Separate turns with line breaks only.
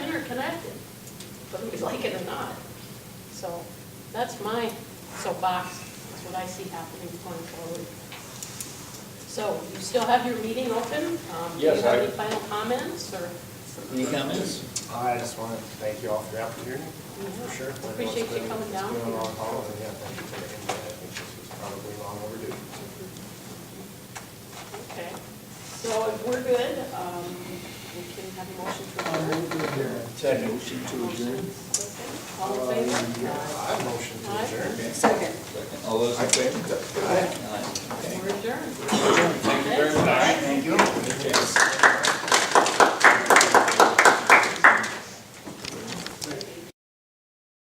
affected, whether we like it or not. So that's my soapbox, that's what I see happening going forward. So you still have your meeting open? Um, Do you
Yes,
have
I-
any final comments or?
Any comments?
I just want to thank you all for the opportunity,
Yeah.
for sure. I know it's
Appreciate you
been-
coming down.
It's been a long haul, and yeah, thank you for the input. I think this is probably long overdue.
Okay, so if we're good, um, we can have a motion to adjourn.
Second. Motion to adjourn. Uh,
All in favor?
I motion to
Aye.
adjourn.
Second. All those in favor?
Aye.